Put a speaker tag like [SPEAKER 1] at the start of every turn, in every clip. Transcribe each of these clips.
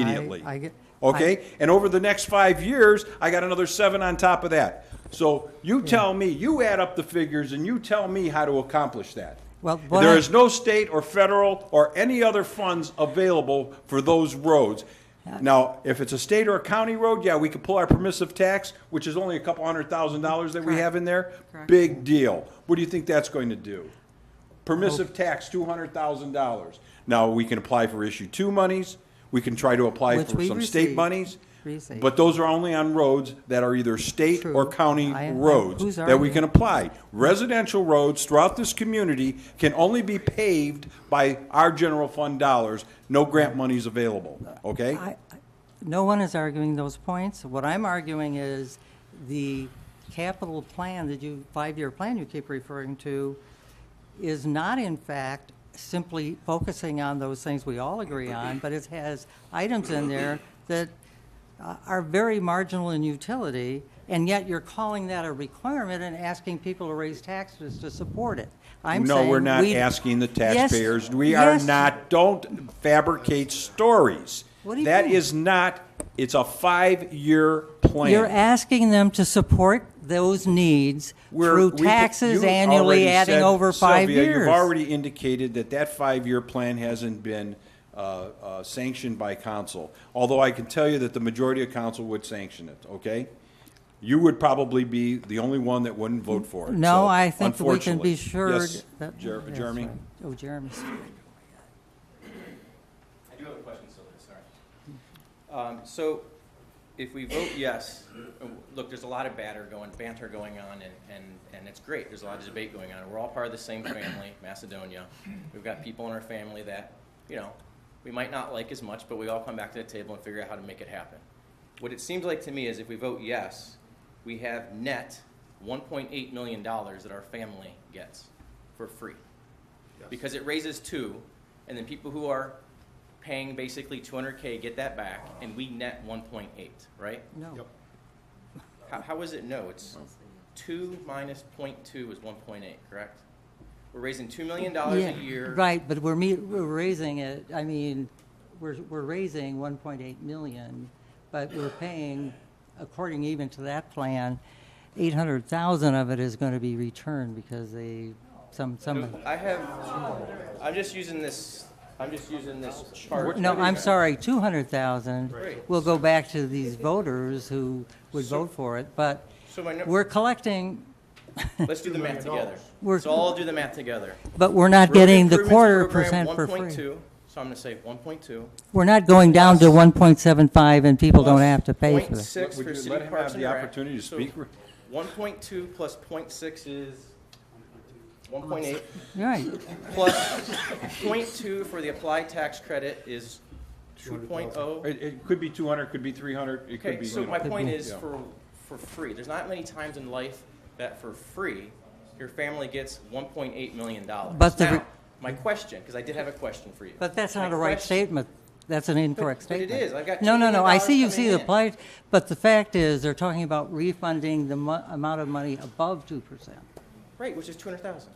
[SPEAKER 1] immediately.
[SPEAKER 2] I get-
[SPEAKER 1] Okay? And over the next five years, I got another seven on top of that. So you tell me, you add up the figures and you tell me how to accomplish that.
[SPEAKER 2] Well, what
[SPEAKER 1] There
[SPEAKER 2] I-
[SPEAKER 1] is no state or federal or any other funds available for those roads. Now, if it's a state or a county road, yeah, we could pull our permissive tax, which is only a couple hundred thousand dollars that we have in there. Big deal. What do you think that's going to do?
[SPEAKER 2] Oh.
[SPEAKER 1] Permissive tax, two hundred thousand dollars. Now, we can apply for issue two monies, we can try to apply
[SPEAKER 2] Which
[SPEAKER 1] for
[SPEAKER 2] we
[SPEAKER 1] some state
[SPEAKER 2] received.
[SPEAKER 1] monies.
[SPEAKER 2] Received.
[SPEAKER 1] But those are only on roads that are either state or
[SPEAKER 2] True.
[SPEAKER 1] county
[SPEAKER 2] I- I-
[SPEAKER 1] roads
[SPEAKER 2] who's
[SPEAKER 1] that we
[SPEAKER 2] arguing?
[SPEAKER 1] can apply. Residential roads throughout this community can only be paved by our general fund dollars. No grant money is available, okay?
[SPEAKER 2] I- I- No one is arguing those points. What I'm arguing is the capital plan that you, five-year plan you keep referring to, is not in fact simply focusing on those things we all agree on, but it has items in there that uh, are very marginal in utility, and yet you're calling that a requirement and asking people to raise taxes to support it. I'm
[SPEAKER 1] No, we're
[SPEAKER 2] saying
[SPEAKER 1] not
[SPEAKER 2] we-
[SPEAKER 1] asking the
[SPEAKER 2] Yes,
[SPEAKER 1] taxpayers. We are
[SPEAKER 2] yes.
[SPEAKER 1] not, don't fabricate stories.
[SPEAKER 2] What do you
[SPEAKER 1] That
[SPEAKER 2] think?
[SPEAKER 1] is not, it's a five-year plan.
[SPEAKER 2] You're asking them to support those needs
[SPEAKER 1] We're-
[SPEAKER 2] through
[SPEAKER 1] we-
[SPEAKER 2] taxes
[SPEAKER 1] you
[SPEAKER 2] annually,
[SPEAKER 1] already
[SPEAKER 2] adding
[SPEAKER 1] said,
[SPEAKER 2] over five
[SPEAKER 1] Sylvia,
[SPEAKER 2] years.
[SPEAKER 1] You've already indicated that that five-year plan hasn't been uh, uh, sanctioned by council, although I can tell you that the majority of council would sanction it, okay? You would probably be the only one that wouldn't vote for it.
[SPEAKER 2] No,
[SPEAKER 1] so,
[SPEAKER 2] I think we can
[SPEAKER 1] unfortunately.
[SPEAKER 2] be sure.
[SPEAKER 1] Yes,
[SPEAKER 2] that-
[SPEAKER 1] Jer-
[SPEAKER 2] that's
[SPEAKER 1] Jeremy?
[SPEAKER 2] right. Oh, Jeremy.
[SPEAKER 3] I do have a question, Sylvia, sorry. Um, So if we vote yes, uh, look, there's a lot of batter going, banter going on, and, and, and it's great. There's a lot of debate going on. We're all part of the same family, Macedonia. We've got people in our family that, you know, we might not like as much, but we all come back to the table and figure out how to make it happen. What it seems like to me is if we vote yes, we have net $1.8 million that our family gets for free because it raises two, and then people who are paying basically 200K get that back, and we net 1.8, right?
[SPEAKER 2] No,
[SPEAKER 3] How, how is it no? It's two minus point two is 1.8, correct? We're raising $2 million
[SPEAKER 2] Yeah,
[SPEAKER 3] a year.
[SPEAKER 2] Right, but we're me, we're raising it, I mean, we're, we're raising one point eight million, but we're paying, according even to that plan, eight hundred thousand of it is gonna be returned because they, some, some.
[SPEAKER 3] I have, I'm just using this, I'm just using this chart.
[SPEAKER 2] No, I'm sorry, 200,000
[SPEAKER 3] Right.
[SPEAKER 2] will go back to these voters who would vote for it, but
[SPEAKER 3] So my, nu-
[SPEAKER 2] we're collecting,
[SPEAKER 3] let's do the math together.
[SPEAKER 2] We're-
[SPEAKER 3] So all do the math together.
[SPEAKER 2] but we're not
[SPEAKER 3] Road
[SPEAKER 2] getting the
[SPEAKER 3] improvements
[SPEAKER 2] quarter
[SPEAKER 3] program,
[SPEAKER 2] percent for free.
[SPEAKER 3] 1.2, so I'm gonna say 1.2.
[SPEAKER 2] We're not going down to 1.75 and people don't have to pay for
[SPEAKER 3] Point
[SPEAKER 2] it.
[SPEAKER 3] six
[SPEAKER 1] Would
[SPEAKER 3] for
[SPEAKER 1] you
[SPEAKER 3] city
[SPEAKER 1] let him
[SPEAKER 3] parks
[SPEAKER 1] have
[SPEAKER 3] and
[SPEAKER 1] the
[SPEAKER 3] rec.
[SPEAKER 1] opportunity to
[SPEAKER 3] So
[SPEAKER 1] speak?
[SPEAKER 3] One point two plus point six is one point eight,
[SPEAKER 2] You're right,
[SPEAKER 3] plus point two for the applied tax credit is two point oh.
[SPEAKER 1] It, it could be two hundred, could be three hundred, it could
[SPEAKER 3] Okay,
[SPEAKER 1] be,
[SPEAKER 3] so
[SPEAKER 1] you
[SPEAKER 3] my
[SPEAKER 1] know.
[SPEAKER 3] point is
[SPEAKER 1] Yeah.
[SPEAKER 3] for, for free, there's not many times in life that for free, your family gets one point eight million dollars.
[SPEAKER 2] But the re-
[SPEAKER 3] Now, my question, because I did have a question for you.
[SPEAKER 2] but that's
[SPEAKER 3] My
[SPEAKER 2] not a right
[SPEAKER 3] question-
[SPEAKER 2] statement. That's an incorrect
[SPEAKER 3] but it
[SPEAKER 2] statement.
[SPEAKER 3] is. I've got
[SPEAKER 2] No,
[SPEAKER 3] $2
[SPEAKER 2] no, no, I see
[SPEAKER 3] million
[SPEAKER 2] you see the
[SPEAKER 3] coming
[SPEAKER 2] plight, but the fact is, they're talking about refunding the mo- amount of money above 2%.
[SPEAKER 3] Right, which is two hundred thousand.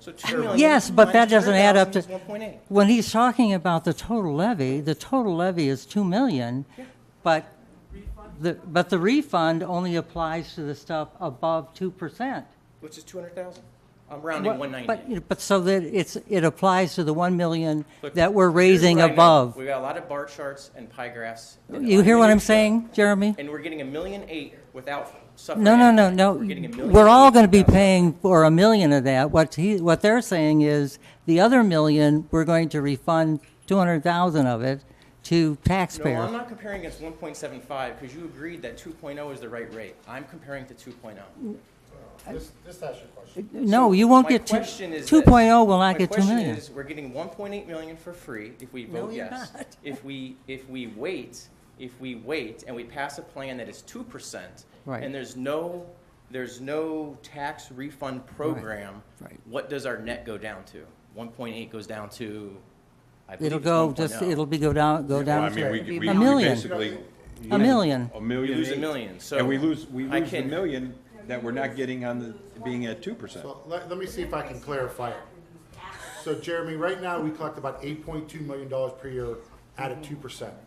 [SPEAKER 3] So two million.
[SPEAKER 2] Yes, but that doesn't add up to-
[SPEAKER 3] One point eight.
[SPEAKER 2] When he's talking about the total levy, the total levy is two million, but the, but the refund only applies to the stuff above two percent.
[SPEAKER 3] Which is two hundred thousand. I'm rounding one ninety.
[SPEAKER 2] But, you know, but so that it's, it applies to the one million that we're raising above.
[SPEAKER 3] We've got a lot of bar charts and pie graphs. and
[SPEAKER 2] You hear what I'm
[SPEAKER 3] underneath stuff.
[SPEAKER 2] saying, Jeremy?
[SPEAKER 3] And we're getting a million eight without suffering.
[SPEAKER 2] No, no, no,
[SPEAKER 3] anything.
[SPEAKER 2] no.
[SPEAKER 3] We're getting a million.
[SPEAKER 2] We're all
[SPEAKER 3] eight
[SPEAKER 2] gonna be
[SPEAKER 3] without-
[SPEAKER 2] paying for a million of that. What he, what they're saying is, the other million, we're going to refund two hundred thousand of it to
[SPEAKER 3] No, I'm
[SPEAKER 2] taxpayers.
[SPEAKER 3] not comparing against one point seven five because you agreed that two oh is the right rate. I'm comparing to two oh.
[SPEAKER 4] This, this that's your question.
[SPEAKER 2] No, you won't
[SPEAKER 3] My
[SPEAKER 2] get two,
[SPEAKER 3] question is
[SPEAKER 2] two
[SPEAKER 3] this.
[SPEAKER 2] point oh will not
[SPEAKER 3] My
[SPEAKER 2] get two
[SPEAKER 3] question
[SPEAKER 2] million.
[SPEAKER 3] is, We're getting one point eight million for free if we
[SPEAKER 2] No,
[SPEAKER 3] vote
[SPEAKER 2] you're
[SPEAKER 3] yes.
[SPEAKER 2] not.
[SPEAKER 3] If we, if we wait, if we wait and we pass a plan that is two percent.
[SPEAKER 2] Right.
[SPEAKER 3] And there's no, there's no tax refund program.
[SPEAKER 2] Right.
[SPEAKER 3] What does our net go down to? One point eight goes down to, I believe
[SPEAKER 2] It'll
[SPEAKER 3] it's oh.
[SPEAKER 2] go, just,
[SPEAKER 3] 1.0.
[SPEAKER 2] it'll be go down, go
[SPEAKER 1] Well, I
[SPEAKER 2] down
[SPEAKER 1] mean, we- we-
[SPEAKER 2] to
[SPEAKER 1] we
[SPEAKER 2] a million.
[SPEAKER 1] basically
[SPEAKER 2] A million.
[SPEAKER 1] A million.
[SPEAKER 3] We lose a
[SPEAKER 1] eight.
[SPEAKER 3] million, so
[SPEAKER 1] And we lose, we
[SPEAKER 3] I
[SPEAKER 1] lose the
[SPEAKER 3] can-
[SPEAKER 1] million that we're not getting on the, being at two percent.
[SPEAKER 4] So let, let me see if I can clarify it. So Jeremy, right now, we collect about eight point two million dollars per year at a two percent.